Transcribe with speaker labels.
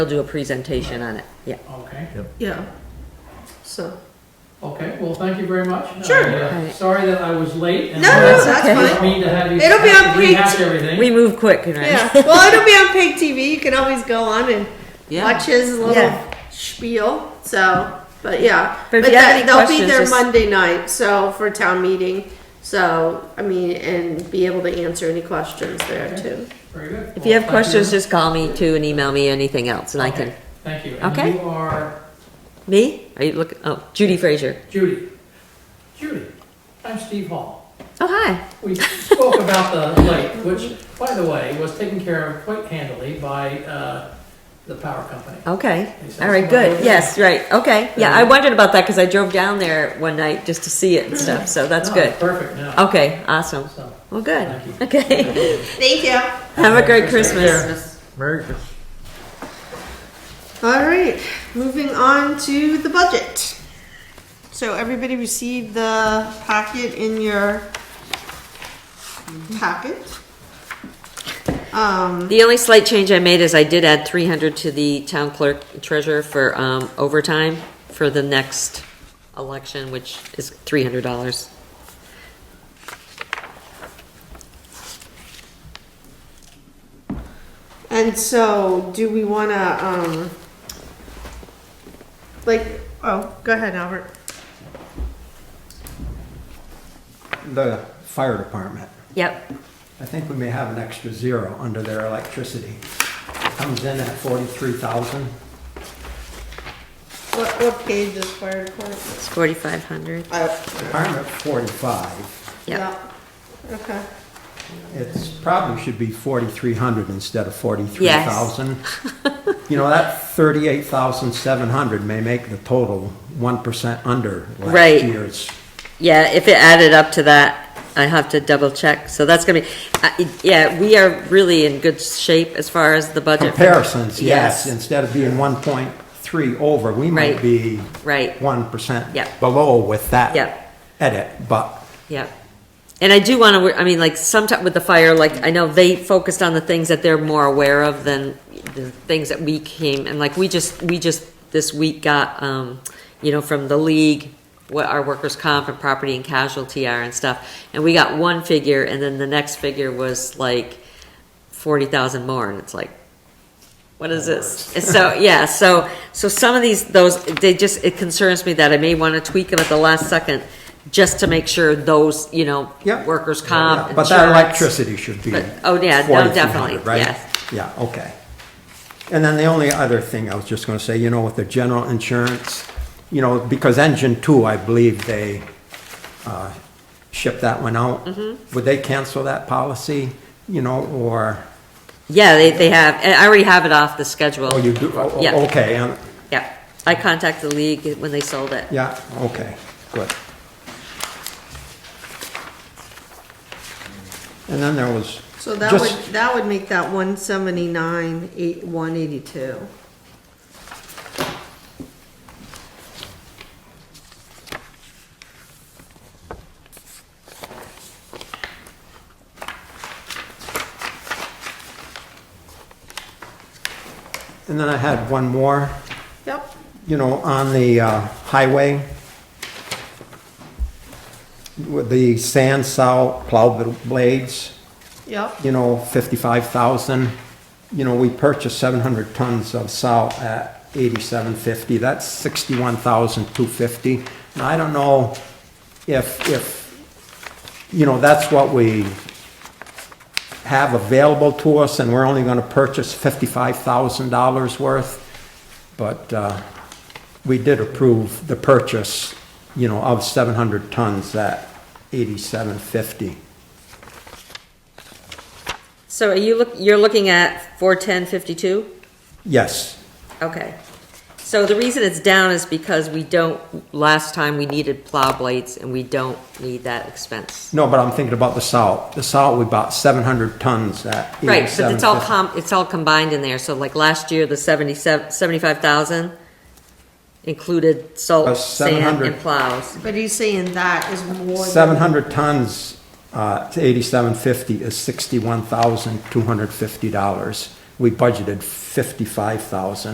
Speaker 1: They'll do a presentation on it, yeah.
Speaker 2: Okay,
Speaker 3: Yeah, so.
Speaker 2: okay, well, thank you very much.
Speaker 3: Sure.
Speaker 2: Uh,
Speaker 1: Right.
Speaker 2: Sorry that I was late. and
Speaker 3: No,
Speaker 2: I
Speaker 3: no, no, that's
Speaker 1: okay.
Speaker 2: didn't
Speaker 3: fine.
Speaker 2: mean to have you.
Speaker 3: It'll be on
Speaker 2: have to rehash
Speaker 3: page-
Speaker 2: everything.
Speaker 1: We move quick, you know.
Speaker 3: Yeah, well, it'll be on Pig TV. You can always go on and
Speaker 1: Yeah.
Speaker 3: watch his little
Speaker 1: Yeah.
Speaker 3: spiel. So, but yeah,
Speaker 1: But if you have any
Speaker 3: they'll be
Speaker 1: questions,
Speaker 3: there
Speaker 1: just-
Speaker 3: Monday night. So for town meeting. So I mean, and be able to answer any questions there too.
Speaker 2: Very good.
Speaker 1: If you have
Speaker 2: Well, thank
Speaker 1: questions, just call me too and email me anything else and I can,
Speaker 2: Okay, Thank you.
Speaker 1: Okay.
Speaker 2: And you are
Speaker 1: me? Are you looking, oh, Judy Fraser.
Speaker 2: Judy. Judy, I'm Steve Hall.
Speaker 1: Oh, hi.
Speaker 2: We spoke about the lake, which, by the way, was taken care of quite handily by uh, the power company.
Speaker 1: Okay.
Speaker 2: Thanks,
Speaker 1: All right,
Speaker 2: that's what I
Speaker 1: good.
Speaker 2: was-
Speaker 1: Yes, right. Okay. Yeah, I wondered about that because I drove down there one night just to see it and stuff, so that's
Speaker 2: No,
Speaker 1: good.
Speaker 2: Oh, Perfect, now.
Speaker 1: Okay, awesome.
Speaker 2: So,
Speaker 1: Well, good.
Speaker 2: Thank
Speaker 1: Okay.
Speaker 3: Thank you.
Speaker 1: Have a great
Speaker 2: Christmas.
Speaker 1: Christmas.
Speaker 4: Merry Christmas.
Speaker 3: All right, moving on to the budget. So everybody received the packet in your packet. Um,
Speaker 1: The only slight change I made is I did add three hundred to the town clerk treasurer for um, overtime for the next election, which is three hundred dollars.
Speaker 3: And so, do we wanna, um, like, oh, go ahead, Albert.
Speaker 5: the fire department.
Speaker 1: Yep.
Speaker 5: I think we may have an extra zero under their electricity. Comes in at forty-three thousand.
Speaker 3: What, what page is fire department?
Speaker 1: It's forty-five hundred.
Speaker 3: Oh,
Speaker 5: Department forty-five.
Speaker 1: Yep.
Speaker 3: Okay.
Speaker 5: It's probably should be forty-three hundred instead of forty-three thousand. You know, that thirty-eight thousand seven hundred may make the total one percent under
Speaker 1: Right.
Speaker 5: last year's.
Speaker 1: Yeah, if it added up to that, I have to double check. So that's gonna be, I- yeah, we are really in good shape as far as the budget.
Speaker 5: Comparisons, yes,
Speaker 1: Yes.
Speaker 5: instead of being one point three over, we might
Speaker 1: Right.
Speaker 5: be
Speaker 1: Right.
Speaker 5: one percent
Speaker 1: Yep.
Speaker 5: below with that
Speaker 1: Yep.
Speaker 5: edit, but
Speaker 1: Yeah. And I do want to, I mean, like, sometime with the fire, like, I know they focused on the things that they're more aware of than the things that we came, and like, we just, we just, this week got, um, you know, from the league, what our workers' comp and property and casualty are and stuff, and we got one figure, and then the next figure was like forty thousand more, and it's like, what is this? And So, yeah, so, so some of these, those, they just, it concerns me that I may want to tweak them at the last second, just to make sure those, you know,
Speaker 5: Yeah.
Speaker 1: workers'
Speaker 5: Yeah,
Speaker 1: comp,
Speaker 5: But that
Speaker 1: insurance.
Speaker 5: electricity should be.
Speaker 1: But- oh, yeah, no,
Speaker 5: 4,300,
Speaker 1: definitely,
Speaker 5: right?
Speaker 1: yes.
Speaker 5: Yeah, okay. And then the only other thing I was just gonna say, you know, with the general insurance, you know, because engine two, I believe they, uh, shipped that one out.
Speaker 1: Mm-hmm.
Speaker 5: Would they cancel that policy, you know, or,
Speaker 1: Yeah, they, they have, and I already have it off the schedule.
Speaker 5: oh, you do, oh,
Speaker 1: Yeah.
Speaker 5: oh, okay, um,
Speaker 1: Yeah, I contacted the league when they sold it.
Speaker 5: yeah, okay, good. And then there was.
Speaker 3: So that would,
Speaker 5: just-
Speaker 3: that would make that one seventy-nine, eight, one eighty-two.
Speaker 5: And then I had one more.
Speaker 3: Yep.
Speaker 5: you know, on the uh, highway, with the sand salt plow blades,
Speaker 3: Yep.
Speaker 5: you know, 55,000. You know, we purchased 700 tons of salt at 87.50, that's 61,250. Now, I don't know if, if, you know, that's what we have available to us, and we're only gonna purchase $55,000 worth, but uh, we did approve the purchase, you know, of 700 tons at 87.50.
Speaker 1: So are you look, you're looking at four ten fifty-two?
Speaker 5: Yes.
Speaker 1: Okay. So the reason it's down is because we don't, last time we needed plow blades and we don't need that expense.
Speaker 5: No, but I'm thinking about the salt. The salt, we bought seven hundred tons at
Speaker 1: Right, but it's all
Speaker 5: $87.50.
Speaker 1: com, it's all combined in there, so like last year, the seventy-seven, seventy-five thousand included
Speaker 5: Uh,
Speaker 1: salt, sand,
Speaker 5: 700.
Speaker 1: and plows.
Speaker 3: But he's saying that is more than.
Speaker 5: 700 tons uh, to 8750 is $61,250. We budgeted 55,000.